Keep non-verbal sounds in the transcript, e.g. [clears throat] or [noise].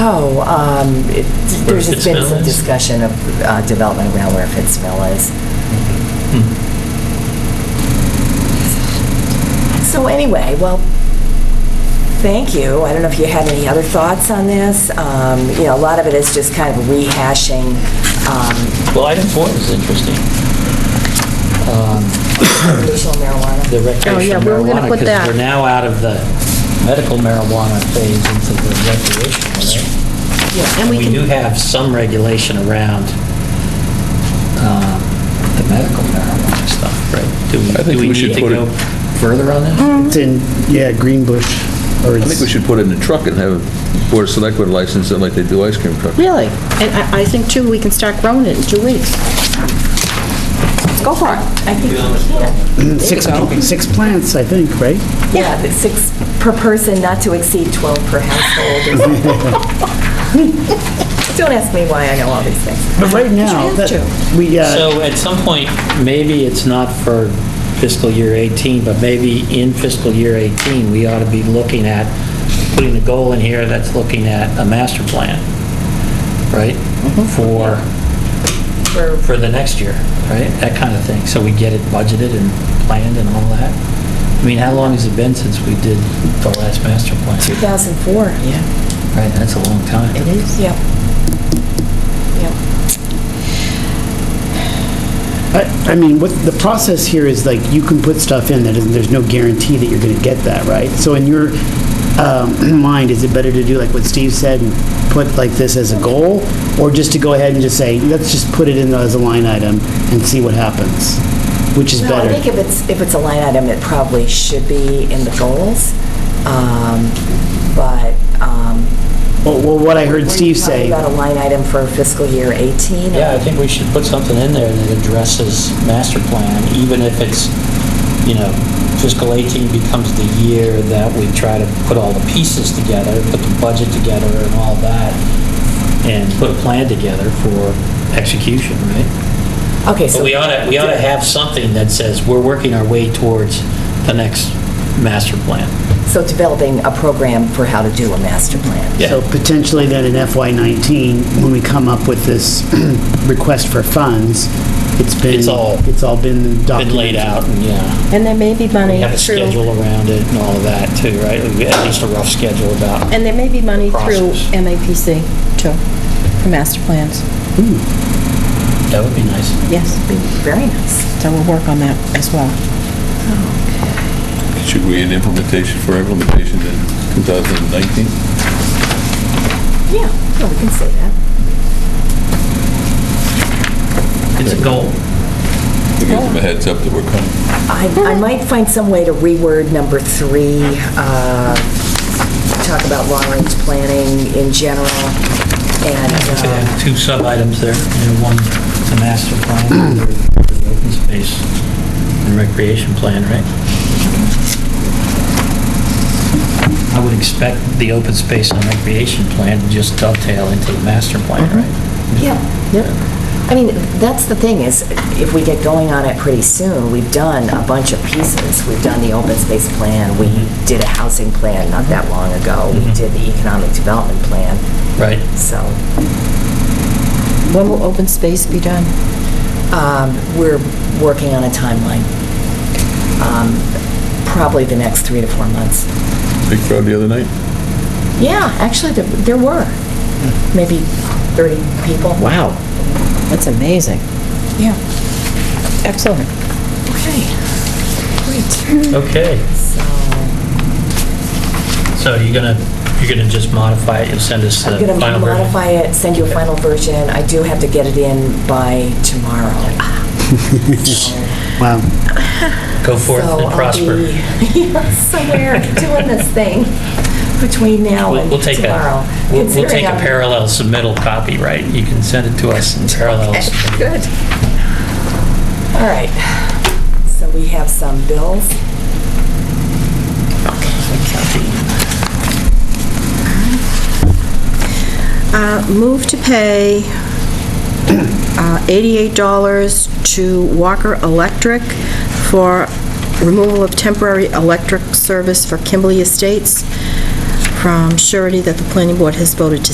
Oh, um, it- there's just been some Fitzmill is? discussion of uh, development around where Fitzmill is. Hmm. So anyway, well, thank you. I don't know if you had any other thoughts on this. Um, You know, a lot of it is just kind of rehashing. um, Well, item four is interesting. Um, recreational marijuana. The recreational Oh, we were gonna marijuana, put because that. we're now out of the medical marijuana phase into the recreational, right? and we We can- do have some regulation around um, the medical marijuana stuff, right? Do we- I think do we should need put to it- go further on that? It's in, yeah, Green Bush. or I think we it's- should put it in a truck and have a board of selectmen license it like they do ice cream trucks. Really? And I, I think too, we can start growing it in two weeks. Go for it. I think you can. Six, six plants, I think, right? Yeah, but six per person, not to exceed 12 per [laughs] household. or something. Don't ask me why I know all these things. But right now, have that- to. we, uh, So at some point, maybe it's not for fiscal year 18, but maybe in fiscal year 18, we ought to be looking at, putting a goal in here that's looking at a master plan, right? For, Mm-hmm. for the next year, right? That kind of thing. So we get it budgeted and planned and all that. I mean, how long has it been since we did the last master [laughs] plan? 2004. Yeah. Right, that's a long time. is. Yep. Yep. I I mean, what, the process here is like, you can put stuff in that, is- there's no guarantee that you're going to get that, right? So in your um, [clears throat] mind, is it better to do like what Steve said, and put like this as a goal? Or just to go ahead and just say, let's just put it in as a line item and see what happens? Which is No, I better? think if it's, if it's a line item, it probably should be in the goals, um, but, um. Well, well, what I heard Steve We're say, talking about a line item for fiscal year 18. Yeah, I think we should put something in there that addresses master plan, even if it's, you know, fiscal 18 becomes the year that we try to put all the pieces together, put the budget together and all that, and put a plan together for execution, right? Okay, so. But we ought to, we ought to have something that says we're working our way towards the next master plan. So developing a program for how to do a master plan. Yeah. So potentially then in FY19, when we come up with this [clears throat] request for funds, it's been... It's all- It's all been documented. Been laid out and, yeah, And there may be money. we have a through- schedule around it and all of that too, right? At least a rough schedule about And there may be money through Process. MAPC too, for master plans. That would be nice. Yes, Be Very nice. so we'll work on that as well. Should we in implementation, for implementation in 2019? Yeah, no, we can say that. It's a goal. To give them a heads up that we're coming. I, I might find some way to reword number three, uh, talk about long-range planning in general, and, So they uh, have Two sub-items there, you know, one, the master plan, the other, the open space and recreation plan, right? I would expect the open space and recreation plan to just dovetail into the master plan, right? Yeah. Yep. I mean, that's the thing is, if we get going on it pretty soon, we've done a bunch of pieces. We've done the open space plan, we did a housing plan not that long ago, we did the economic development plan, Right. so When will open space be done? um, we're working on a timeline. Um, Probably the next three to four months. Big crowd the other night? Yeah, actually, there there were maybe 30 people. Wow, that's amazing. Yeah. Excellent. Okay. Great. Okay, So... so you're gonna, you're gonna just modify it, you'll send us the I'm going to final version? modify it, send you a final version. I do have to get it in by tomorrow. So- Wow. Go forth so I'll and be [laughs] prosper. Somewhere doing this thing between now We'll and we'll take tomorrow. a, we'll- we'll take considering a I'm- parallel submittal copy, right? You can send it to us in parallel. submittal. Good. All right. So we have some bills. Uh, Move to pay uh, $88 to Walker Electric for removal of temporary electric service for Kimberly Estates from surety that the planning board has voted to